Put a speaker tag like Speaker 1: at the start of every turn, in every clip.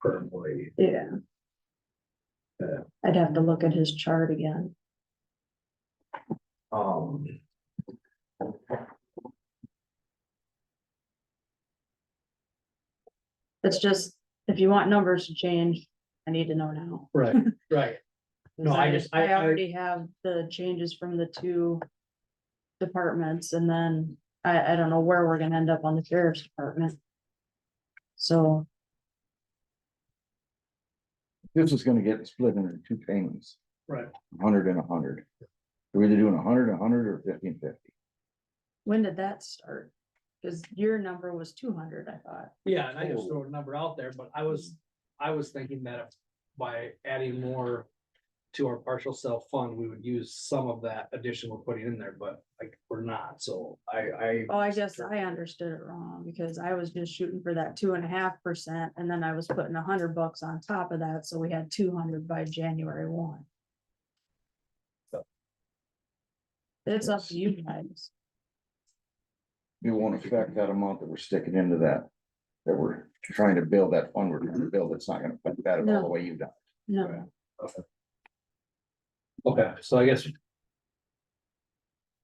Speaker 1: per employee.
Speaker 2: Yeah.
Speaker 1: Yeah.
Speaker 2: I'd have to look at his chart again.
Speaker 1: Um.
Speaker 2: It's just, if you want numbers to change, I need to know now.
Speaker 1: Right, right. No,
Speaker 2: 'Cause
Speaker 1: I just- I-
Speaker 2: I
Speaker 1: I-
Speaker 2: already have the changes from the two departments and then I, I don't know where we're gonna end up on the sheriff's department. So,
Speaker 3: This is gonna get split into two payments,
Speaker 1: Right.
Speaker 3: a hundred and a hundred. We're either doing a hundred, a hundred, or fifteen fifty.
Speaker 2: when did that start? Cause your number was two hundred, I thought.
Speaker 1: Yeah, and I just throw a number out there, but I was, I was thinking that by adding more. To our partial self fund, we would use some of that addition we're putting in there, but like, we're not, so I, I,
Speaker 2: Oh, I guess I understood it wrong because I was just shooting for that two and a half percent and then I was putting a hundred bucks on top of that, so we had two hundred by January one. It's up to you guys.
Speaker 3: It won't affect that amount that we're sticking into that, that we're trying to build that fund, we're trying to build, it's not gonna affect that at all the
Speaker 2: No.
Speaker 3: way you've done.
Speaker 2: No,
Speaker 1: okay, so I guess.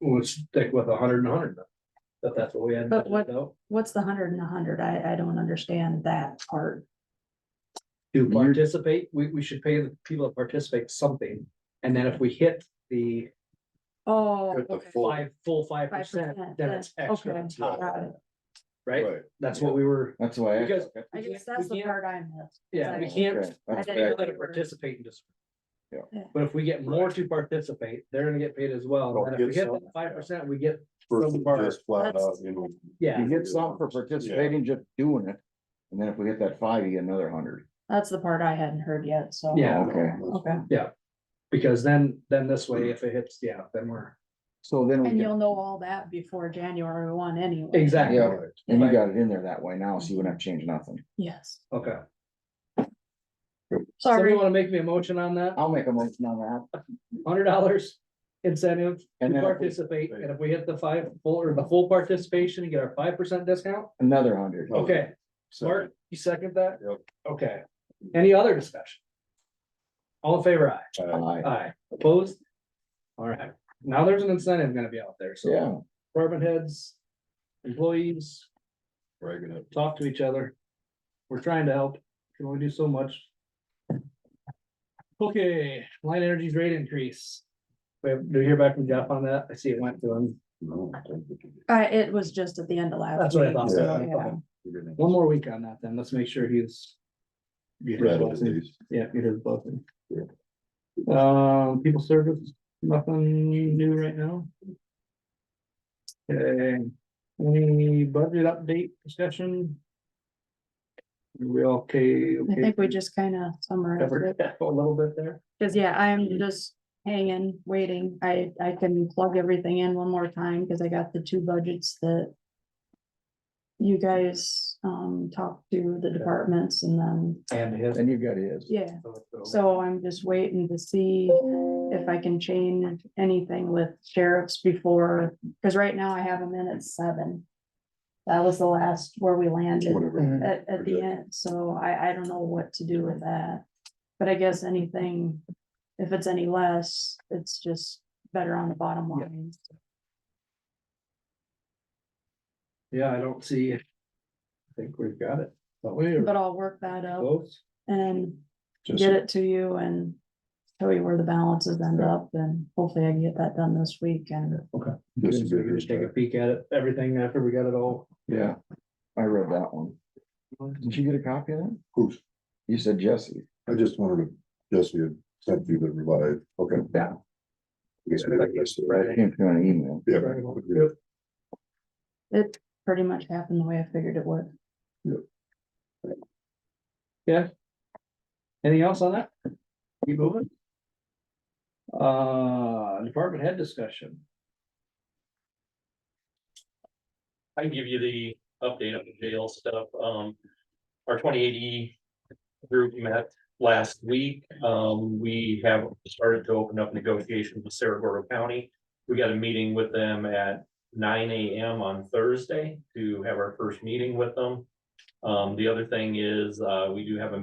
Speaker 1: We'll stick with a hundred and a hundred, then, if that's what we had.
Speaker 2: But what- what's the hundred and a hundred? I, I don't understand that part.
Speaker 1: To
Speaker 3: You're-
Speaker 1: participate, we, we should pay the people that participate something, and then if we hit the
Speaker 2: Oh.
Speaker 4: With the
Speaker 2: okay.
Speaker 4: full-
Speaker 1: five, full five percent,
Speaker 2: 5%,
Speaker 1: then it's
Speaker 2: then-
Speaker 1: extra
Speaker 2: okay,
Speaker 1: on top,
Speaker 2: got it.
Speaker 1: right? That's what we were.
Speaker 3: That's why. I-
Speaker 1: Because-
Speaker 2: I
Speaker 1: We
Speaker 2: guess
Speaker 1: can't-
Speaker 2: that's
Speaker 1: we
Speaker 2: the
Speaker 1: can't-
Speaker 2: part I missed.
Speaker 1: Yeah, we
Speaker 2: Right.
Speaker 1: can't,
Speaker 3: Okay, that's
Speaker 2: I
Speaker 1: we can't
Speaker 3: correct.
Speaker 1: let it participate in this.
Speaker 3: Yeah.
Speaker 2: Yeah.
Speaker 1: But if we get more to participate, they're gonna get paid as well.
Speaker 4: Well,
Speaker 1: And if we
Speaker 4: get
Speaker 1: hit
Speaker 4: some,
Speaker 1: that five percent, we get,
Speaker 4: Versus
Speaker 1: Some are-
Speaker 4: just flat
Speaker 2: That's-
Speaker 4: out, you know,
Speaker 1: yeah,
Speaker 3: You get something for participating, just doing it, and then if we hit that five, you get another hundred.
Speaker 2: That's the part I hadn't heard yet, so.
Speaker 1: Yeah.
Speaker 3: Okay,
Speaker 2: Okay,
Speaker 1: because then, then this way, if it hits, yeah, then we're.
Speaker 3: so then we
Speaker 2: and
Speaker 3: can,
Speaker 2: you'll know all that before January one anyway.
Speaker 1: Exactly,
Speaker 3: Yeah. and
Speaker 1: Right.
Speaker 3: you got it in there that way now, so you wouldn't have changed nothing.
Speaker 2: Yes,
Speaker 1: okay. Somebody
Speaker 2: sorry.
Speaker 1: wanna make me a motion on that?
Speaker 3: I'll make a motion on that,
Speaker 1: Hundred dollars incentive
Speaker 3: and
Speaker 1: to
Speaker 3: then if we-
Speaker 1: participate, and if we hit the five, full, or the full participation, and get our five percent discount,
Speaker 3: another hundred.
Speaker 4: Okay.
Speaker 1: okay.
Speaker 4: so-
Speaker 1: Mark, you second that?
Speaker 4: Yep.
Speaker 1: Okay, any other discussion? All in favor, aye?
Speaker 3: Aye.
Speaker 1: Aye, opposed? All right, now there's an incentive gonna be out there, so
Speaker 3: Yeah,
Speaker 1: department heads, employees,
Speaker 4: We're gonna-
Speaker 1: talk to each other. We're trying to help, can only do so much. Okay, line energy's rate increase. We have, do you hear back from Jeff on that? I see it went to him.
Speaker 4: no, I think we can-
Speaker 2: Uh, it was just at the end of last.
Speaker 1: That's what I
Speaker 2: week.
Speaker 1: thought.
Speaker 4: Yeah.
Speaker 2: Yeah.
Speaker 4: we're gonna-
Speaker 1: One more week on that then, let's make sure he's. you hear
Speaker 4: Rattle
Speaker 1: what's in.
Speaker 4: these.
Speaker 1: Yeah, it is buzzing.
Speaker 4: Yeah.
Speaker 1: Um, people service, nothing new right now. Okay, any budget update discussion? Are We all okay?
Speaker 2: I think we
Speaker 1: okay?
Speaker 2: just kind of summarized
Speaker 1: Covered
Speaker 2: it,
Speaker 1: that A little bit there.
Speaker 2: because yeah, I'm just hanging, waiting. I, I can plug everything in one more time, because I got the two budgets that you guys, um, talked to the departments and then,
Speaker 1: And his.
Speaker 3: and you got his.
Speaker 2: yeah. So I'm just waiting to see if I can change anything with sheriffs before, because right now I have them in at seven. That was the last where we landed.
Speaker 4: Whatever.
Speaker 2: at, at the
Speaker 4: Good.
Speaker 2: end, so I, I don't know what to do with that. But I guess anything, if it's any less, it's just better on the bottom
Speaker 1: Yeah.
Speaker 2: line.
Speaker 1: Yeah, I don't see. I think we've got it. But we
Speaker 2: But uh, I'll work that up
Speaker 1: close.
Speaker 2: and
Speaker 4: Just-
Speaker 2: get it to you and show you where the balances end up, and hopefully I can get that done this week and.
Speaker 4: just
Speaker 1: We can just Take a peek at it, everything after we got it all.
Speaker 3: Yeah, I read that one. Did you get a copy of that?
Speaker 4: Oops,
Speaker 3: You said Jesse.
Speaker 4: I just wanted to, Jesse had sent you the revised, okay.
Speaker 3: Yeah.
Speaker 4: Yes, I guess,
Speaker 3: It
Speaker 4: right?
Speaker 3: Came through an email.
Speaker 4: Yeah.
Speaker 1: Right.
Speaker 2: It pretty much happened the way I figured it would.
Speaker 1: Anything else on that? Keep moving. Uh, department head discussion.
Speaker 5: I can give you the update on the jail stuff, um, our twenty eighty group met last week, um, we have started to open up negotiations with Saragordo County. We got a meeting with them at nine AM on Thursday to have our first meeting with them. Um, the other thing is, uh, we do have a